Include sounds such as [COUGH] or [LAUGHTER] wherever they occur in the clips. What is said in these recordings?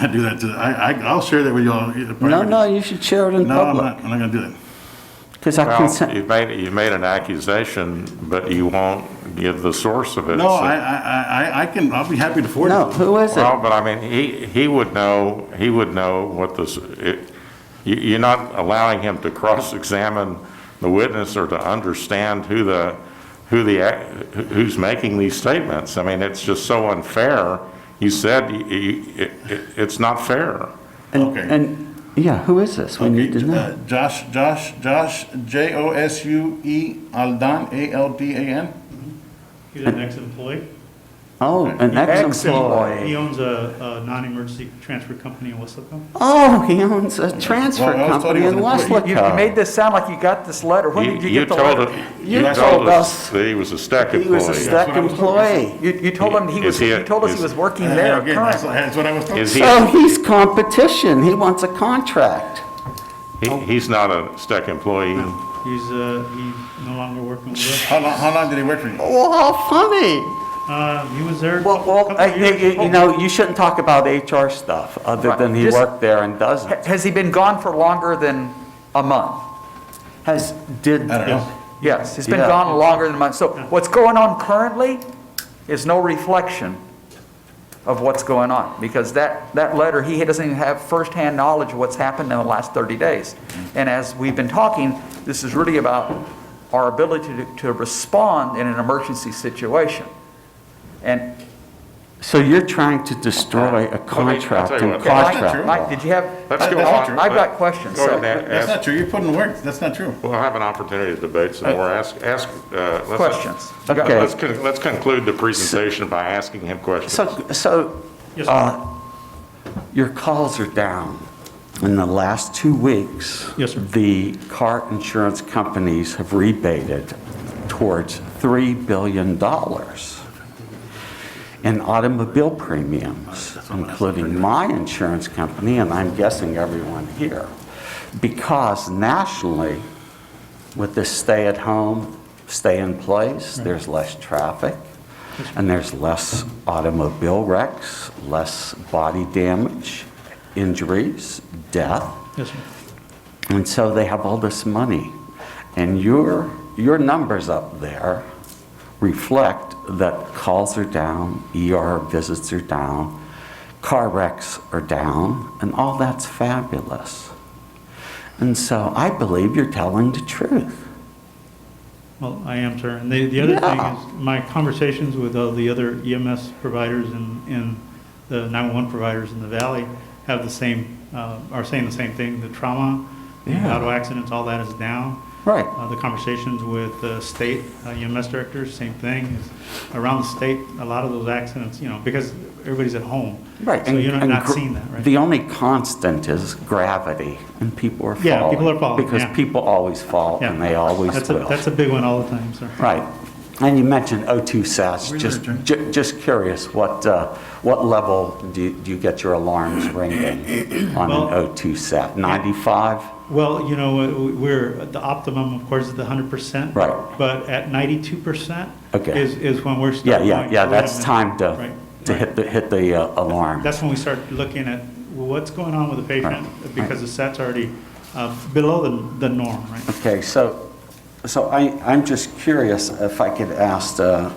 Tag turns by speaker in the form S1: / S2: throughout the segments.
S1: I do that to, I, I, I'll share that with y'all.
S2: No, no, you should share it in
S1: No, I'm not,
S2: public,
S1: I'm not gonna do that.
S2: because I [LAUGHS] can,
S3: Well,
S2: sen-
S3: you made, you made an accusation, but you won't give the source of it.
S1: No,
S3: so-
S1: I, I, I, I can, I'll be happy to forward it.
S2: no, who is
S3: Well,
S2: it?
S3: but I mean, he, he would know, he would know what this, it- you, you're not allowing him to cross-examine the witness or to understand who the, who the, ac- who's making these statements. I mean, it's just so unfair. You said, you- you, it, it- it's not fair.
S2: And,
S1: Okay.
S2: and, yeah, who is this? We
S1: Okay,
S2: need to know.
S1: uh, Josh, Josh, Josh, J O S U E Aldan, A L D A N.
S4: He's an ex-employee.
S2: Oh, an ex-employee.
S4: He owns a, a non-emergency transfer company in Weslaco.
S2: Oh, he owns a transfer
S1: Well, I was told
S2: company
S1: he
S2: in
S1: was an
S5: You you made
S2: Westlaco.
S5: this sound like you got this letter. When did you get the
S3: told
S5: letter?
S3: it-
S2: You
S3: You
S2: told
S3: told us
S2: us
S3: that he was a stack employee.
S2: He was a stack employee.
S5: You, you told him he
S3: Is
S5: was,
S3: he a-
S5: you told us
S3: is-
S5: he was working there,
S1: Again, that's,
S5: current.
S1: that's what I was told.
S3: Is he,
S2: So he's competition, he wants a contract.
S3: he- he's not a stack employee.
S4: He's, uh, he's no longer working with us.
S1: How long, how long did he work for you?
S2: Oh, how funny.
S4: Uh, he was there. a
S2: Well, well,
S4: couple
S2: I
S4: of years.
S2: think, you you know, you shouldn't talk about HR stuff, other
S5: Right.
S2: than he
S5: Just-
S2: worked there and
S5: Ha-
S2: doesn't.
S5: Has he been gone for longer than a month?
S2: Has, did,
S1: I don't know.
S5: Yes, he's been
S2: Yeah.
S5: gone longer than a month. So what's going on currently is no reflection of what's going on, because that, that letter, he doesn't even have firsthand knowledge of what's happened in the last 30 days. And as we've been talking, this is really about our ability to, to respond in an emergency situation. And
S2: so you're trying to destroy a
S3: tell you
S2: contract and
S3: what, that's
S5: Mike,
S2: contract.
S5: Mike, did you have?
S3: Let's
S1: That's
S3: go
S1: not
S3: on.
S1: true.
S5: Uh, I've got questions,
S3: Go
S5: so-
S3: ahead and
S1: That's
S3: ask.
S5: [LAUGHS]
S1: not true. You put in work. That's not true.
S3: We'll have an opportunity to debate some more. Ask, ask. uh, let's-
S5: Questions.
S3: Let-
S2: Okay.
S3: Let's, con- let's conclude the presentation by asking him questions.
S2: So, so,
S4: Yes, sir.
S2: uh, your calls are down. In the last two weeks.
S4: Yes, sir.
S2: The car insurance companies have rebated towards $3 billion in automobile premiums, including my insurance company, and I'm guessing everyone here. Because nationally, with this stay at home, stay in place, there's less traffic, and there's less automobile wrecks, less body damage, injuries, death.
S4: Yes, sir.
S2: And so they have all this money. And your, your numbers up there reflect that calls are down, ER visits are down, car wrecks are down, and all that's fabulous. And so I believe you're telling the truth.
S4: Well, I am, sir. And the, the other thing
S2: Yeah.
S4: is, my conversations with all the other EMS providers and, and the 911 providers in the valley have the same, uh, are saying the same thing. The trauma, the
S2: Yeah.
S4: auto accidents, all that is down.
S2: Right.
S4: Uh, The conversations with the state uh, EMS directors, same thing. It's Around the state, a lot of those accidents, you know, because everybody's at home.
S2: Right.
S4: So
S2: and-
S4: you're
S2: and
S4: not
S2: gr-
S4: seeing that, right?
S2: The only constant is gravity, and people are falling.
S4: Yeah, people are falling,
S2: Because
S4: yeah.
S2: people always fall,
S4: Yeah.
S2: and they always
S4: That's a-
S2: will.
S4: That's a big one all the time, sir.
S2: Right. And you mentioned O2 SAS, just, ju- just curious, what, uh, what level do you- do you get your alarms ringing on an
S4: Well-
S2: O2 SAT? 95?
S4: Well, you know, uh, we- we're, the optimum, of course, is the hundred percent.
S2: Right.
S4: But at ninety-two percent.
S2: Okay.
S4: Is, is when we're.
S2: Yeah,
S4: starting
S2: yeah,
S4: going,
S2: yeah,
S4: "Wait a
S2: that's
S4: minute."
S2: time to,
S4: Right,
S2: to
S4: right.
S2: hit the, hit the uh, alarm.
S4: That's when we start looking at well, what's going on with the patient,
S2: Right, right.
S4: because the set's already uh, below the, the norm, right?
S2: Okay, so, so I, I'm just curious if I could ask uh,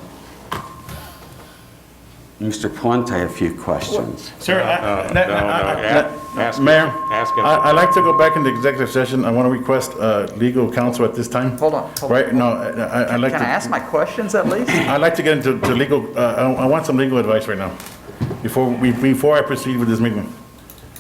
S2: Mr. Puente a few questions.
S1: Sir,
S3: No,
S1: I-
S3: no,
S1: that-
S3: no,
S1: I- I-
S3: ask- ask him-
S1: Mayor,
S3: ask him.
S1: I- I'd like to go back into executive session. I want to request uh, legal counsel at this time.
S5: Hold on, hold on.
S1: Right, no, I- I- I'd like
S5: Can I
S1: to,
S5: ask my questions at least?
S1: I'd like to get into to legal, uh, I I want some legal advice right now, before we, before I proceed with this meeting.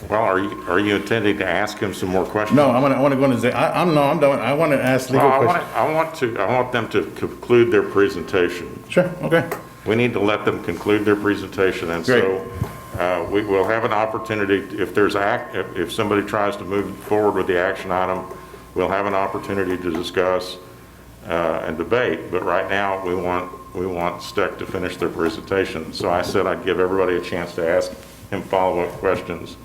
S3: Well, are you, are you intending to ask him some more questions?
S1: No, I want to, I want to go into, exec- I- I'm, no, I'm done. I want to ask
S3: Well,
S1: legal
S3: I want,
S1: questions.
S3: I want to, I want them to conclude their presentation.
S1: Sure, okay.
S3: We need to let them conclude their presentation, and so uh, we will have an opportunity, if there's act, if- if somebody tries to move forward with the action item, we'll have an opportunity to discuss uh, and debate, but right now, we want, we want Steck to finish their presentation. So I said I'd give everybody a chance to ask him follow-up questions.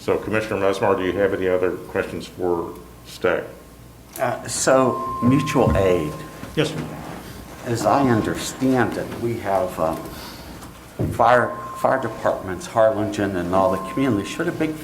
S3: So Commissioner Musmar, do you have any other questions for Steck?
S2: Uh, So mutual aid.
S4: uh, Yes, sir.
S2: As I understand it, we have um, fire fire departments, Harlingen and all the community, should have big